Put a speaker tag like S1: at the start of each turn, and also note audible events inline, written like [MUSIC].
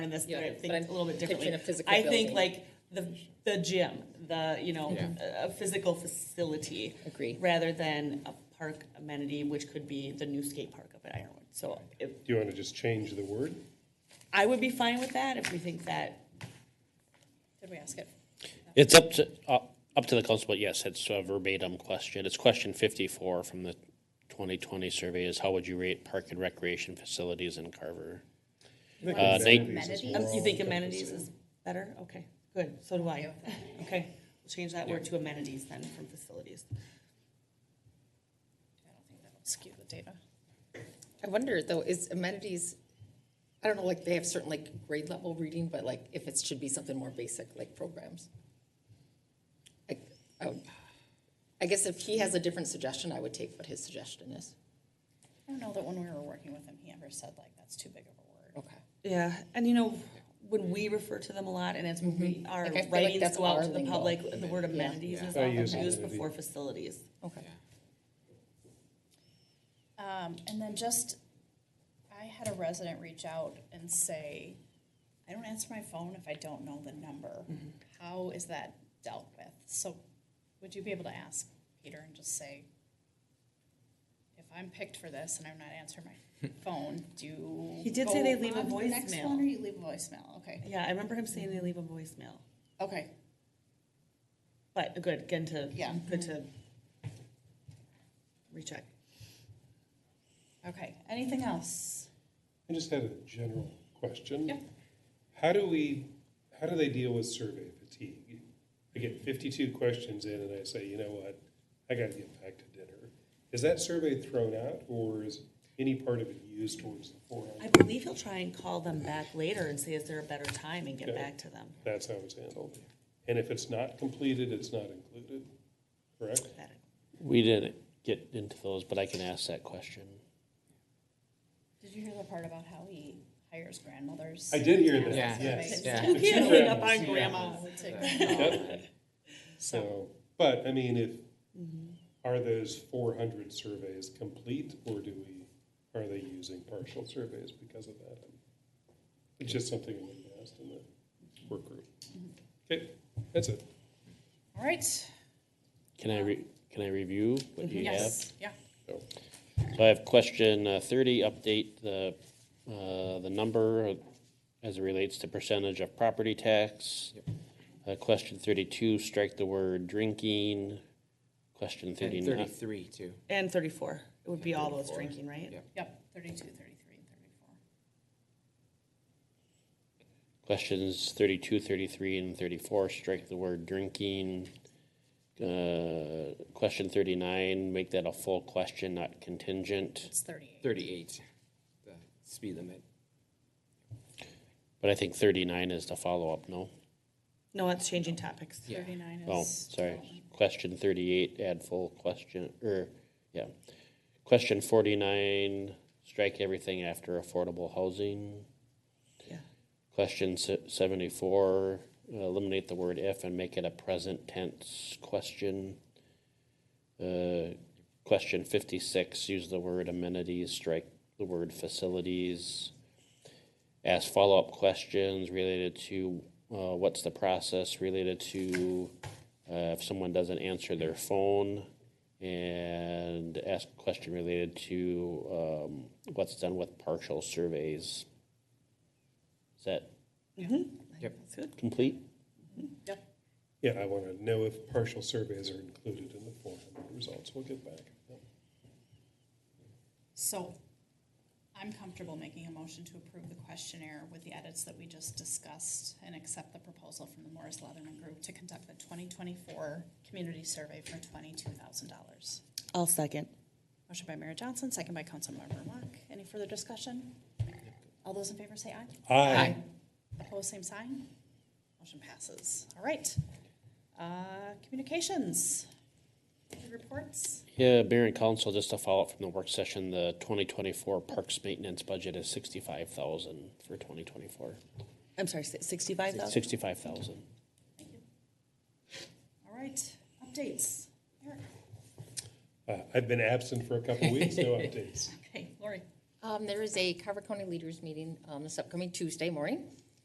S1: in this, but
S2: Yeah,
S1: I
S2: but
S1: think
S2: I'm
S1: a little bit
S2: picturing
S1: differently.
S2: a physical
S1: I think
S2: building.
S1: like the, the gym, the, you know,
S3: Yeah.
S1: a, a physical facility.
S2: Agree.
S1: Rather than a park amenity, which could be the new skate park up at Ironwood. So if,
S4: Do you want to just change the word?
S1: I would be fine with that if we think that,
S2: Did we ask it?
S5: It's up to, uh, up to the council, but yes, it's a verbatim question. It's question fifty-four from the twenty twenty survey is how would you rate park and recreation facilities in Carver? Uh, they-
S1: Um, you think amenities is better? Okay, good, so do I. Okay, we'll change that word to amenities then from facilities.
S2: I don't think that'll skew the data. I wonder though, is amenities, I don't know, like they have certain like grade level reading, but like if it should be something more basic, like programs. Like, I would, I guess if he has a different suggestion, I would take what his suggestion is.
S6: I don't know that when we were working with him, he ever said like, that's too big of a word.
S2: Okay.
S1: Yeah, and you know, when we we refer to them a lot, and as we, our
S2: Like, I feel like
S1: writings
S2: that's
S1: go out
S2: our
S1: to the
S2: lingo.
S1: public, the word amenities is
S4: I use
S1: often used
S4: amenity.
S1: before facilities.
S2: Okay.
S6: Um, and then just, I had a resident reach out and say, I don't answer my phone if I don't know the number. How is that dealt with? So would you be able to ask Peter and just say, if I'm picked for this and I'm not answering my phone, do you?
S1: He did say they
S6: go
S1: leave a
S6: on to the Next
S1: voicemail.
S6: one or you leave a voicemail? Okay,
S1: Yeah, I remember him saying they leave a voicemail,
S6: okay.
S1: but good, again, to,
S6: Yeah.
S1: good to recheck.
S6: Okay, anything else?
S4: I just had a general question.
S6: Yeah.
S4: How do we, how do they deal with survey fatigue? I get fifty-two questions in and I say, you know what, I gotta get back to dinner. Is that survey thrown out or is any part of it used towards the four
S1: I
S4: hundred?
S1: believe he'll try and call them back later and say, is there a better time, and get
S4: Okay.
S1: back to them.
S4: That's how it's handled. And if it's not completed, it's not included, correct?
S1: That-
S5: We didn't get into those, but I can ask that question.
S6: Did you hear the part about how he hires grandmothers?
S4: I did hear that,
S6: to ask
S3: Yeah.
S4: yes.
S6: surveys?
S3: Yeah.
S1: You can't hang up on grandma.
S6: [LAUGHS]
S4: Yep. So, but I mean, if, are those four hundred surveys complete or do we, are they using partial surveys because of that? It's just something we asked in the work group. Okay, that's it.
S6: All right.
S5: Can I re, can I review what you have?
S6: Mm-hmm. Yes, yeah.
S4: So,
S5: So I have question uh, thirty, update the, uh, the number as it relates to percentage of property tax. Uh, question thirty-two, strike the word drinking. Question
S3: And
S5: thirty-nine.
S3: thirty-three too.
S1: And thirty-four, it would be all those
S3: 34.
S1: drinking, right?
S3: Yeah.
S6: Yep, 32, 33, and 34.
S5: Questions 32, 33, and 34, strike the word drinking. Uh, Question 39, make that a full question, not contingent.
S6: It's 38.
S3: Thirty-eight, the speed limit.
S5: But I think 39 is the follow-up, no?
S1: No, it's changing topics.
S3: Yeah.
S6: 39
S5: Oh,
S6: is.
S5: sorry. Question 38, add full question, or, yeah. Question 49, strike everything after affordable housing.
S1: Yeah.
S5: Question se- 74, uh, eliminate the word if and make it a present tense question. Uh, Question 56, use the word amenities, strike the word facilities. Ask follow-up questions related to, uh, what's the process related to uh, if someone doesn't answer their phone? And ask a question related to um, what's done with partial surveys. Is that
S3: Yep.
S1: That's good.
S5: complete?
S6: Yep.
S4: Yeah, I want to know if partial surveys are included in the four hundred results. We'll get back.
S6: So I'm comfortable making a motion to approve the questionnaire with the edits that we just discussed and accept the proposal from the Morris Leatherman Group to conduct the 2024 community survey for $22,000.
S1: I'll second.
S6: Motion by Mayor Johnson, second by Councilmember Mock. Any further discussion? All those in favor say aye.
S4: Aye.
S6: Opposed, same sign. Motion passes. All right. Uh, Communications. Any Reports.
S5: Yeah, Mayor and Council, just a follow-up from the work session, the twenty twenty-four parks maintenance budget is sixty-five thousand for twenty twenty-four.
S1: I'm sorry, sixty-five thousand?
S5: Sixty-five thousand.
S6: All right, updates. Eric.
S4: Uh, I've been absent for a couple of weeks, no updates.
S6: Okay, Lori.
S2: Um, there is a Carver County Leaders Meeting, um, this upcoming Tuesday morning.